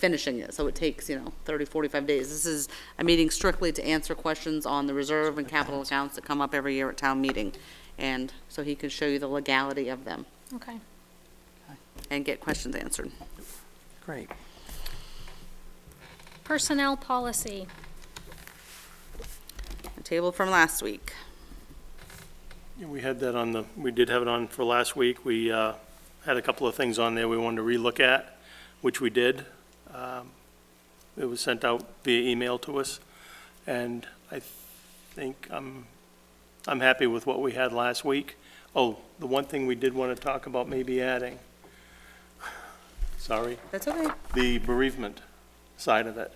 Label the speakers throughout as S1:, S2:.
S1: finishing it, so it takes, you know, 30, 45 days. This is a meeting strictly to answer questions on the reserve and capital accounts that come up every year at town meeting, and so he can show you the legality of them
S2: Okay.
S1: and get questions answered.
S3: Great.
S2: Personnel policy.
S1: The table from last week.
S4: Yeah, We had that on the, we did have it on for last week. We uh, had a couple of things on there we wanted to relook at, which we did. Um, It was sent out via email to us, and I think I'm, I'm happy with what we had last week. Oh, the one thing we did want to talk about maybe adding, sorry,
S1: That's okay.
S4: the bereavement side of it.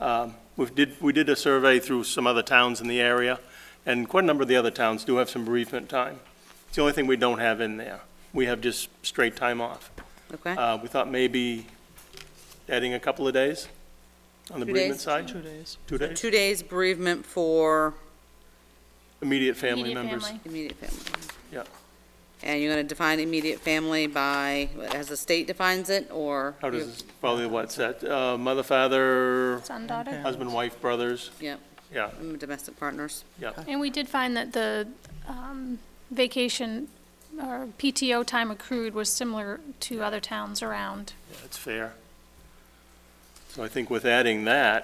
S4: Um, We did, we did a survey through some other towns in the area, and quite a number of the other towns do have some bereavement time. It's the only thing we don't have in there. We have just straight time off.
S1: Okay?
S4: Uh, We thought maybe adding a couple of days on the
S1: Two
S4: bereavement
S1: days.
S4: side?
S3: Two days.
S4: Two days?
S1: Two days bereavement for
S4: Immediate family
S2: Immediate
S4: members.
S2: family.
S1: immediate family.
S4: Yeah,
S1: And you're gonna define immediate family by, as the state defines it, or?
S4: how does, this- probably what's that, Uh, mother, father,
S2: Son, daughter.
S4: husband, wife, brothers,
S1: Yeah,
S4: yeah,
S1: um, domestic partners.
S4: yeah.
S2: And we did find that the um, vacation or PTO time accrued was similar to other towns around.
S4: That's fair. So I think with adding that,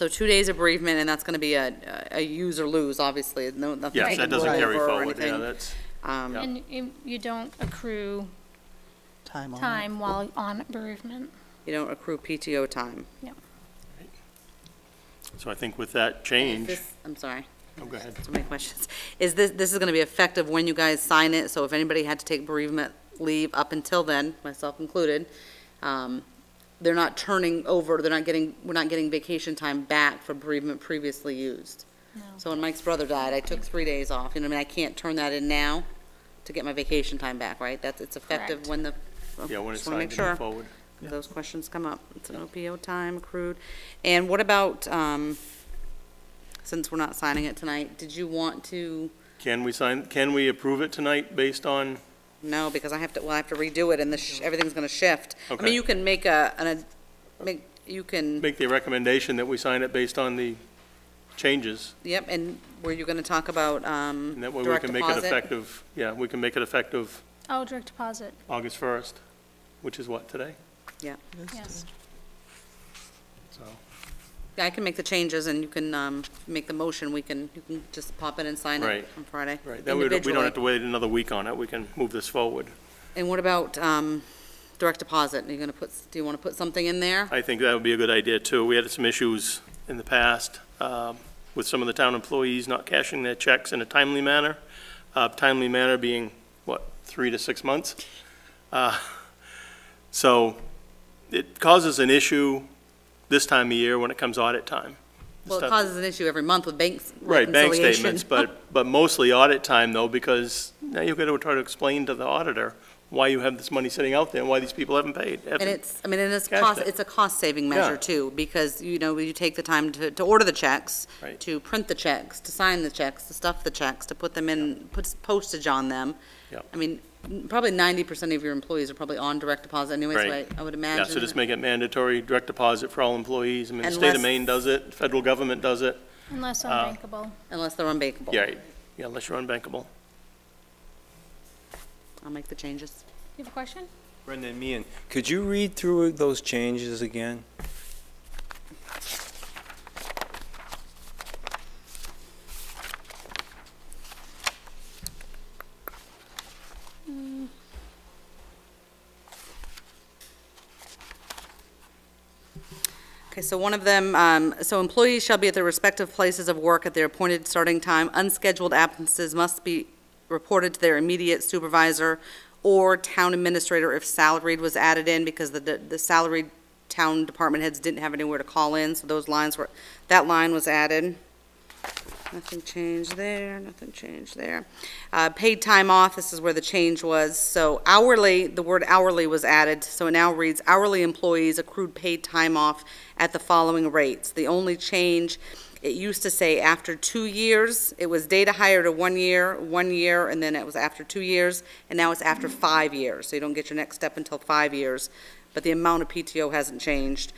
S1: So two days of bereavement, and that's gonna be a, a use or lose, obviously, no, nothing.
S4: yes, that doesn't
S1: taken
S4: carry
S1: over or
S4: forward, yeah,
S1: anything.
S4: that's.
S1: Um,
S4: Yeah.
S2: And you you don't accrue
S3: Time on it.
S2: time while on bereavement.
S1: you don't accrue PTO time.
S4: So I think with that change,
S1: This- I'm sorry,
S4: oh, go ahead.
S1: so many questions. Is this, this is gonna be effective when you guys sign it, so if anybody had to take bereavement leave up until then, myself included, um, they're not turning over, they're not getting, we're not getting vacation time back for bereavement previously used. So when Mike's brother died, I took three days off, you know, what I mean, I can't turn that in now to get my vacation time back, right? That's, it's effective
S2: Correct.
S1: when the.
S4: Yeah, when it's
S1: just wanna make
S4: signed to move
S1: sure.
S4: forward.
S1: those questions come up. It's an OPO time accrued. And what about, um, since we're not signing it tonight, did you want to,
S4: Can we sign, can we approve it tonight based on,
S1: no, because I have to, well, I have to redo it and the, sh- everything's gonna shift. I
S4: Okay.
S1: mean, you can make a, an, a- make, you can,
S4: make the recommendation that we sign it based on the changes?
S1: yep, and were you gonna talk about, um,
S4: And that way we
S1: direct
S4: can make it
S1: deposit?
S4: effective, yeah, we can make it effective
S2: Oh, direct deposit,
S4: August 1st, which is what, today?
S1: Yeah,
S2: yes.
S4: So,
S1: I can make the changes and you can, um, make the motion. We can, you can just pop in and sign it
S4: Right.
S1: on Friday.
S4: right, then we don't we don't
S1: individually.
S4: have to wait another week on it, we can move this forward.
S1: And what about, um, direct deposit? Are you gonna put, do you wanna put something in there?
S4: I think that would be a good idea, too. We had some issues in the past um, with some of the town employees not cashing their checks in a timely manner, Uh, timely manner being, what, three to six months? Uh, So it causes an issue this time of year when it comes audit time.
S1: Well, it
S4: Stuff-
S1: causes an issue every month with banks
S4: Right, bank
S1: reconciliation. Oh,
S4: statements, but, but mostly audit time, though, because now you've got to try to explain to the auditor why you have this money sitting out there and why these people haven't paid.
S1: And it's, I mean, and it's
S4: Cash
S1: cost,
S4: that.
S1: it's a cost-saving measure
S4: Yeah.
S1: too, because, you know, you take the time to, to order the checks,
S4: Right.
S1: to print the checks, to sign the checks, to stuff the checks, to put them in, put postage on them.
S4: Yep.
S1: I mean, n- probably ninety percent of your employees are probably on direct deposit anyways,
S4: Right.
S1: but I would
S4: Yeah,
S1: imagine.
S4: so just make it mandatory, direct deposit for all employees. I mean, the state
S1: Unless-
S4: of Maine does it, federal government does it.
S2: Unless unbankable.
S1: Unless they're unbankable.
S4: Yeah, yeah, unless you're unbankable.
S1: I'll make the changes.
S2: You have a question?
S5: Brenda and Mian, could you read through those changes again?
S1: Okay, so one of them, um, so employees shall be at their respective places of work at their appointed starting time. Unscheduled absences must be reported to their immediate supervisor or town administrator if salaried was added in, because the, the salaried town department heads didn't have anywhere to call in, so those lines were, that line was added. Nothing changed there, nothing changed there. Uh, Paid time off, this is where the change was. So hourly, the word hourly was added, so it now reads hourly employees accrued paid time off at the following rates. The only change, it used to say after two years, it was data hire to one year, one year, and then it was after two years, and now it's after five years. So you don't get your next step until five years, but the amount of PTO hasn't changed.